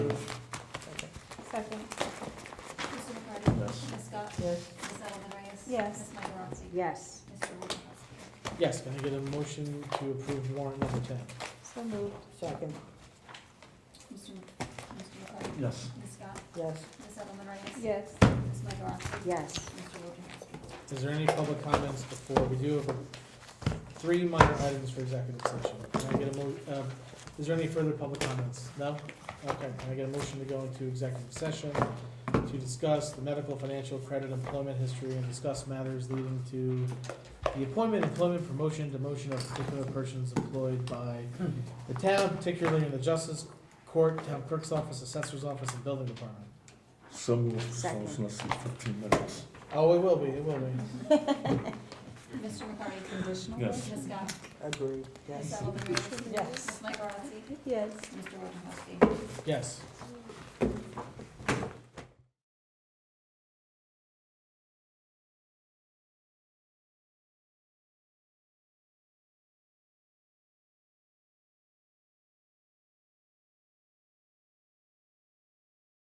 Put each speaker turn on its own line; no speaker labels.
move.
Second.
Mr. McCarty?
Yes.
Ms. Scott?
Yes.
Ms. Ellen Reyes?
Yes.
Ms. Mike Rosati?
Yes.
Mr. Wojciechowski?
Yes, can I get a motion to approve warrant number ten?
So moved.
Second.
Mr. Mc- Mr. McCarty?
Yes.
Ms. Scott?
Yes.
Ms. Ellen Reyes?
Yes.
Ms. Mike Rosati?
Yes.
Mr. Wojciechowski?
Is there any public comments before we do have three minor items for executive session? Can I get a mo, uh, is there any further public comments? No? Okay, can I get a motion to go into executive session to discuss the medical, financial, credit, employment history, and discuss matters leading to the appointment, employment, promotion, demotion of particular persons employed by the town, particularly in the justice court, town clerk's office, assessor's office, and building department.
So moved, so
Second.
it's not fifteen minutes.
Oh, it will be, it will be.
Mr. McCarty?
Conditional?
Yes.
Ms. Scott?
Agreed.
Ms. Ellen Reyes?
Yes.
Ms. Mike Rosati?
Yes.
Mr. Wojciechowski?
Yes.